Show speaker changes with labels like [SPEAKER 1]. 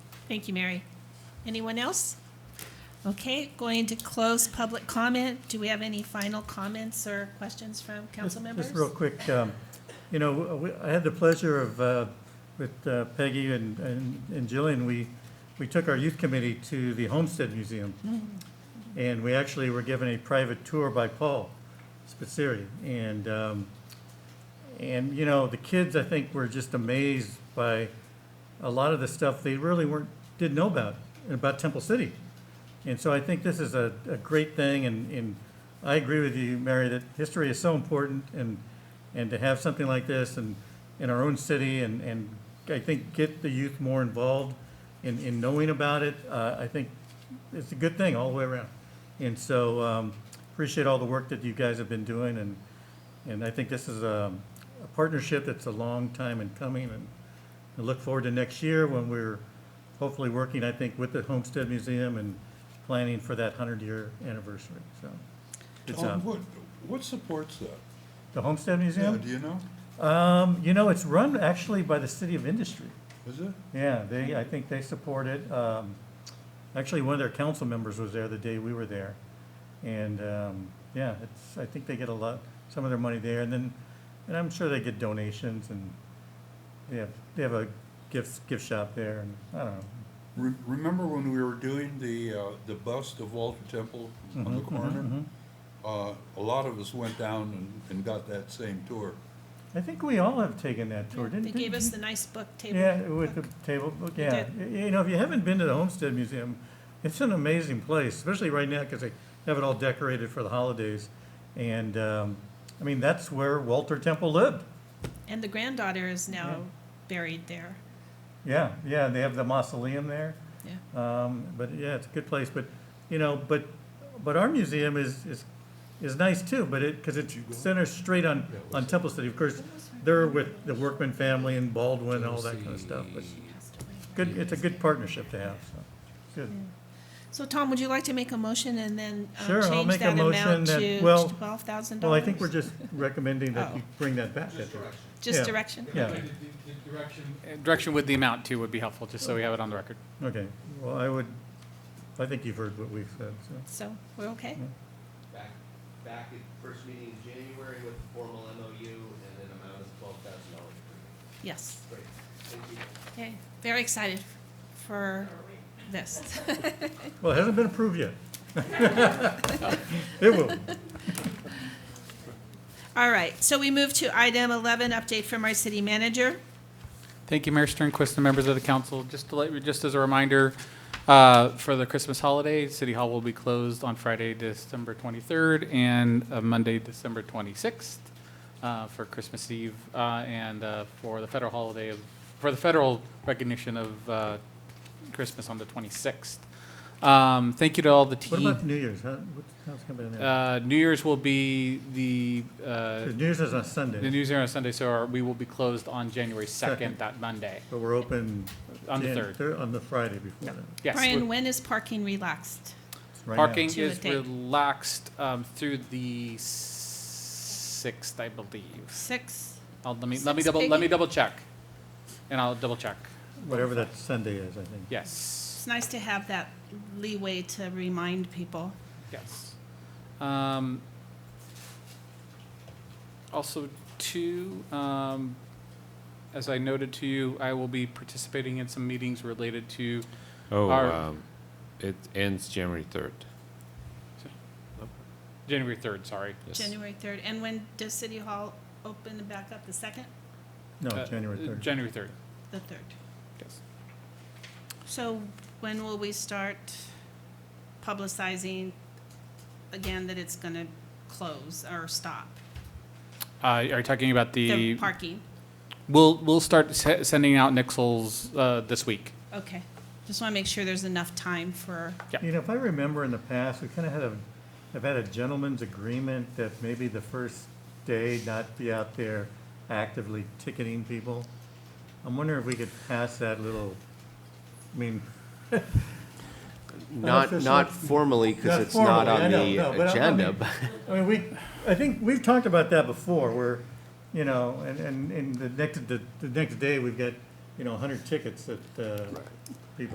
[SPEAKER 1] Thank you, Mary. Anyone else? Okay, going to close public comment. Do we have any final comments or questions from council
[SPEAKER 2] Just-
[SPEAKER 1] members?
[SPEAKER 2] Just real quick, um, you know, uh, we- I had the pleasure of, uh, with uh, Peggy and and and Jillian, we, we took our youth committee to the Homestead Museum.
[SPEAKER 1] Mm.
[SPEAKER 2] And we actually were given a private tour by Paul Spitzeri. And, um, and, you know, the kids, I think, were just amazed by a lot of the stuff they really weren't, didn't know about, about Temple City. And so I think this is a, a great thing, and, and I agree with you, Mary, that history is so important, and, and to have something like this and, in our own city, and, and I think get the youth more involved in, in knowing about it, uh, I think it's a good thing all the way around. And so, um, appreciate all the work that you guys have been doing, and, and I think this is a, a partnership that's a long time in coming, and I look forward to next year when we're hopefully working, I think, with the Homestead Museum and planning for that hundred-year anniversary, so. it's, uh,
[SPEAKER 3] Tom, Um, what, what supports that?
[SPEAKER 2] The Homestead
[SPEAKER 3] Yeah,
[SPEAKER 2] Museum?
[SPEAKER 3] do you know?
[SPEAKER 2] Um, you know, it's run actually by the City of Industry.
[SPEAKER 3] Is it?
[SPEAKER 2] Yeah, they, I think they support it. Um, actually, one of their council members was there the day we were there. And, um, yeah, it's, I think they get a lot, some of their money there, and then, and I'm sure they get donations and they have, they have a gift, gift shop there, and I don't know.
[SPEAKER 3] Re- Remember when we were doing the, uh, the bust of Walter Temple on the
[SPEAKER 2] Mhm, mhm,
[SPEAKER 3] corner?
[SPEAKER 2] mhm.
[SPEAKER 3] Uh, a lot of us went down and, and got that same tour.
[SPEAKER 2] I think we all have taken that tour, didn't
[SPEAKER 1] They
[SPEAKER 2] didn't-
[SPEAKER 1] gave us the nice book table.
[SPEAKER 2] Yeah, with the
[SPEAKER 1] book.
[SPEAKER 2] table book,
[SPEAKER 1] They
[SPEAKER 2] yeah.
[SPEAKER 1] did.
[SPEAKER 2] Y- You know, if you haven't been to the Homestead Museum, it's an amazing place, especially right now because they have it all decorated for the holidays. And, um, I mean, that's where Walter Temple lived.
[SPEAKER 1] And the granddaughter is now
[SPEAKER 2] Yeah.
[SPEAKER 1] buried there,
[SPEAKER 2] Yeah, yeah, they have the mausoleum there.
[SPEAKER 1] yeah.
[SPEAKER 2] Um, but yeah, it's a good place, but, you know, but, but our museum is, is, is nice too, but it, cause it
[SPEAKER 3] Did you go?
[SPEAKER 2] centers straight on,
[SPEAKER 3] Yeah, it
[SPEAKER 2] on
[SPEAKER 3] was-
[SPEAKER 2] Temple City. Of course, they're with the Workman family and Baldwin and all that kind of stuff, but good, it's a good partnership to have, so, good.
[SPEAKER 1] So Tom, would you like to make a motion and then um,
[SPEAKER 2] Sure, I'll
[SPEAKER 1] change
[SPEAKER 2] make a
[SPEAKER 1] that
[SPEAKER 2] motion
[SPEAKER 1] amount
[SPEAKER 2] that-
[SPEAKER 1] to
[SPEAKER 2] well,
[SPEAKER 1] twelve thousand dollars?
[SPEAKER 2] Well, I think we're just recommending that you
[SPEAKER 1] Oh.
[SPEAKER 2] bring that back. I think.
[SPEAKER 1] Just
[SPEAKER 2] yeah.
[SPEAKER 1] direction?
[SPEAKER 2] Yeah,
[SPEAKER 4] The- the Direction direction with the amount too would be helpful, just so we have it on the record.
[SPEAKER 2] okay. Well, I would, I think you've heard what we've said, so.
[SPEAKER 1] So, we're okay?
[SPEAKER 5] back, back at first meeting in January with a formal MOU and an amount of twelve thousand dollars.
[SPEAKER 1] Yes.
[SPEAKER 5] Great, thank you.
[SPEAKER 1] Okay, very excited for this.
[SPEAKER 2] Well, it hasn't been approved yet. It will.
[SPEAKER 1] All right, so we move to item eleven, update from our city manager.
[SPEAKER 4] Thank you, Mayor Sternquist and members of the council. Just to let, just as a reminder, uh, for the Christmas holiday, City Hall will be closed on Friday, December 23rd, and uh, Monday, December 26th, uh, for Christmas Eve, uh, and uh, for the federal holiday of, for the federal recognition of uh, Christmas on the 26th. Um, Thank you to all the
[SPEAKER 2] What
[SPEAKER 4] team.
[SPEAKER 2] about the New Year's? How, what, how's it coming in there?
[SPEAKER 4] Uh, New Year's will be the uh,
[SPEAKER 2] The New Year's is on
[SPEAKER 4] The
[SPEAKER 2] Sunday,
[SPEAKER 4] news here on Sunday, so our- we will be closed on January
[SPEAKER 2] Second.
[SPEAKER 4] 2nd, that Monday.
[SPEAKER 2] but we're open.
[SPEAKER 4] On the
[SPEAKER 2] Jan-
[SPEAKER 4] third.
[SPEAKER 2] thir- On the Friday before that.
[SPEAKER 4] Yes.
[SPEAKER 1] Brian,
[SPEAKER 4] we-
[SPEAKER 1] when is parking relaxed?
[SPEAKER 2] It's right now.
[SPEAKER 4] Parking
[SPEAKER 1] To the
[SPEAKER 4] is
[SPEAKER 1] date.
[SPEAKER 4] relaxed um, through the 6th, I believe.
[SPEAKER 1] Six?
[SPEAKER 4] I'll- Let me, let me
[SPEAKER 1] Six,
[SPEAKER 4] double, let me
[SPEAKER 1] Peggy?
[SPEAKER 4] double check. And I'll double check.
[SPEAKER 2] Whatever that Sunday is, I think.
[SPEAKER 4] Yes,
[SPEAKER 1] It's nice to have that leeway to remind people.
[SPEAKER 4] yes. Um, Also, two, um, as I noted to you, I will be participating in some meetings related to
[SPEAKER 6] Oh,
[SPEAKER 4] Our-
[SPEAKER 6] um, it ends January third.
[SPEAKER 4] January 3rd, sorry.
[SPEAKER 1] January third, and when does City Hall open back up, the second,
[SPEAKER 2] No,
[SPEAKER 4] Uh,
[SPEAKER 2] Oh, January
[SPEAKER 4] uh,
[SPEAKER 2] third.
[SPEAKER 4] January 3rd,
[SPEAKER 1] the third?
[SPEAKER 4] yes.
[SPEAKER 1] So when will we start publicizing again that it's gonna close or stop?
[SPEAKER 4] Uh, are you talking about
[SPEAKER 1] The
[SPEAKER 4] the?
[SPEAKER 1] parking,
[SPEAKER 4] We'll, we'll start se- sending out nixels uh, this week.
[SPEAKER 1] okay. Just wanna make sure there's enough time for,
[SPEAKER 4] Yeah.
[SPEAKER 2] You know, if I remember in the past, we kind of had a, have had a gentleman's agreement that maybe the first day not be out there actively ticketing people. I'm wondering if we could pass that little, I mean,
[SPEAKER 5] Not,
[SPEAKER 2] Unofficial.
[SPEAKER 5] not formally, because
[SPEAKER 2] Not
[SPEAKER 5] it's not
[SPEAKER 2] formally, I
[SPEAKER 5] on
[SPEAKER 2] know,
[SPEAKER 5] the
[SPEAKER 2] no, but I- I
[SPEAKER 5] agenda,
[SPEAKER 2] mean-
[SPEAKER 5] but.
[SPEAKER 2] I mean, we, I think, we've talked about that before, where, you know, and, and, and the next, the, the next day, we've got, you know, hundred tickets that, uh, people